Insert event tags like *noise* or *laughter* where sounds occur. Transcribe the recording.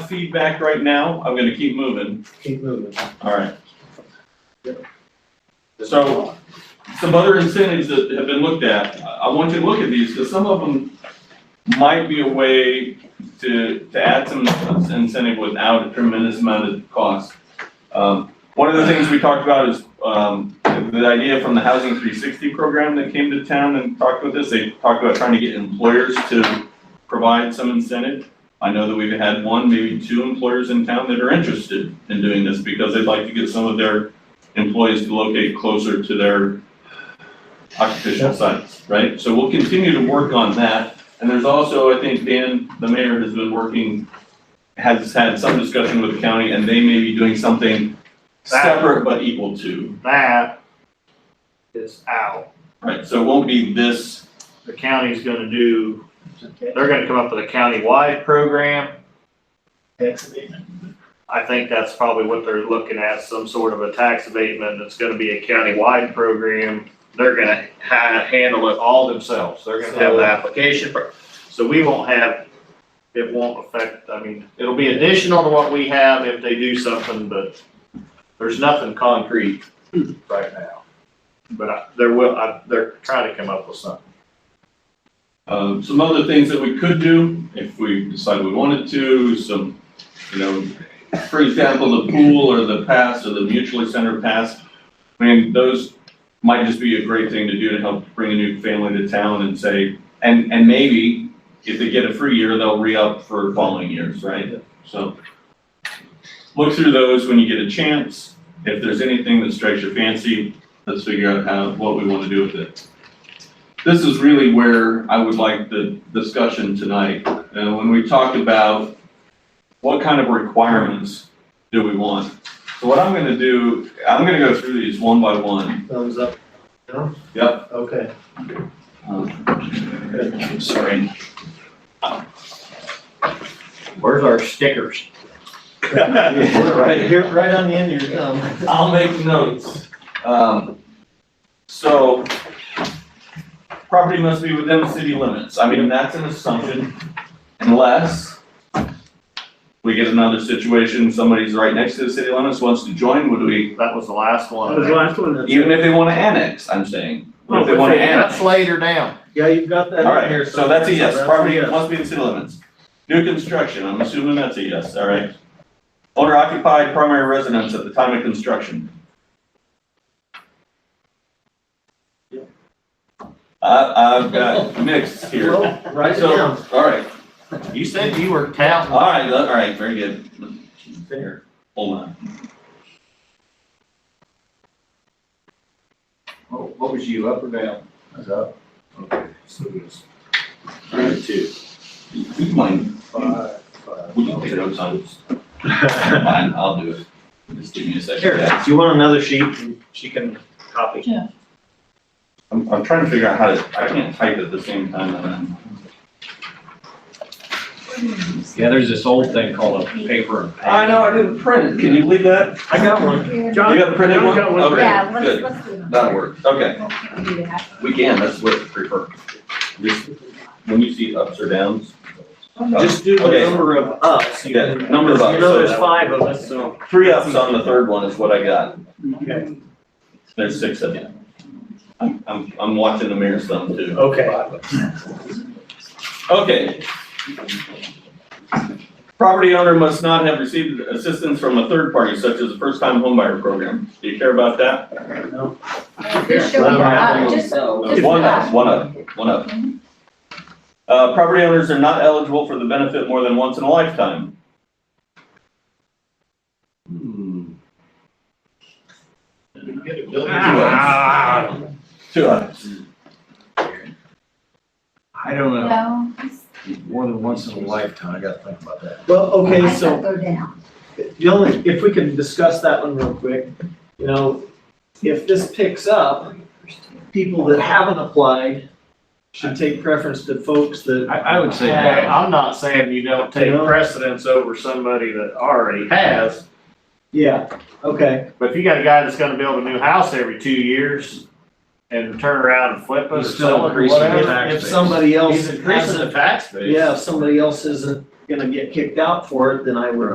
feedback right now, I'm gonna keep moving, Keep moving. alright. So- Some other incentives that have been looked at, I I want you to look at these, because some of them might be a way to, to add some incentive without a tremendous amount of cost. Um, one of the things we talked about is, um, the idea from the Housing three sixty program that came to town and talked with us, they talked about trying to get employers to provide some incentive. I know that we've had one, maybe two employers in town that are interested in doing this because they'd like to get some of their employees to locate closer to their occupational sites, right? So we'll continue to work on that. And there's also, I think, Dan, the mayor has been working, has had some discussion with the county and they may be doing something separate but equal to, That is out. right? So it won't be this, The county's gonna do, they're gonna come up with a county-wide program. I think that's probably what they're looking at, some sort of a tax abatement that's gonna be a county-wide program. They're gonna ha- handle it all themselves. They're gonna have the application. pro- So we won't have, it won't affect, I mean, it'll be additional to what we have if they do something, but there's nothing concrete right now. But I, there will, I, they're trying to come up with something. Um, some other things that we could do if we decide we wanted to, some, you know, for example, the pool or the pass or the mutually centered pass. I mean, those might just be a great thing to do to help bring a new family to town and say, and, and maybe if they get a free year, they'll re-up for following years, right? So look through those when you get a chance. If there's anything that strikes your fancy, let's figure out how, what we want to do with it this is really where I would like the discussion tonight. And when we talk about what kind of requirements do we want? So what I'm gonna do, I'm gonna go through these one by one. Thumbs up. No? Yep. Okay. Um, Sorry. *laughs* Where's our stickers? Right here, right on the end of your thumb. I'll make notes. Um, so, property must be within the city limits. I mean, that's an assumption unless we get another situation, somebody's right next to the city limits, wants to join, would we, That was the last That was one. the last one. that's- even if they wanna annex, I'm saying. If they Oh, wanna okay, annex. That's later down. Yeah, you've got that in here. Alright, so that's a yes, that's property yes. must be in city limits. New construction, I'm assuming that's a yes, alright. Owner occupied primary residence at the time of construction. I, I've got mixed here, Well, write it So- down. alright, You said you were counting. alright, alright, very good. There, hold on. What Oh, what was you, up or down? I was up. Okay, so it was Alright, two. Would you mind, Five, five. would you take notes on? Fine, I'll do it. Just give me a second. Here, if you want another sheet, she can copy. I'm, I'm trying to figure out how to, I can't type at the same time that I'm. Yeah, there's this old thing called a paper and I know, I didn't print it. Can you leave that? I got one. John, You got the printed John's one? got one. Okay. Yeah, good. let's, let's do that. That'll work. Okay, We'll do that. we can, that's what I prefer. Just- When you see ups or downs. Just do the Okay. number of ups. you Yeah, can- number of ups, You know, so- there's five of us, so. Three ups on the third one is what I got. Okay. There's six of you. I'm, I'm, I'm watching the mirror some too. Okay. Okay. Property owner must not have received assistance from a third party such as a first-time homebuyer program. Do you care about that? Just show me the up, just, just the One up. up, one up, one up. Uh, property owners are not eligible for the benefit more than once in a lifetime. Hmm. Ah, Two ups. I don't know, No, more than once in a lifetime, I gotta think about that. Well, okay, I so. said go down. The only, if we can discuss that one real quick, you know, if this picks up, people that haven't applied should take preference to folks that, I, I would say Hey, that. I'm not saying you don't take precedence over somebody that already has, yeah, okay. but if you got a guy that's gonna build a new house every two years and turn around and flip it or He's still sell it or increasing the whatever. tax If base. somebody else He's increasing hasn't, the tax base. yeah, if somebody else isn't gonna get kicked out for it, then I would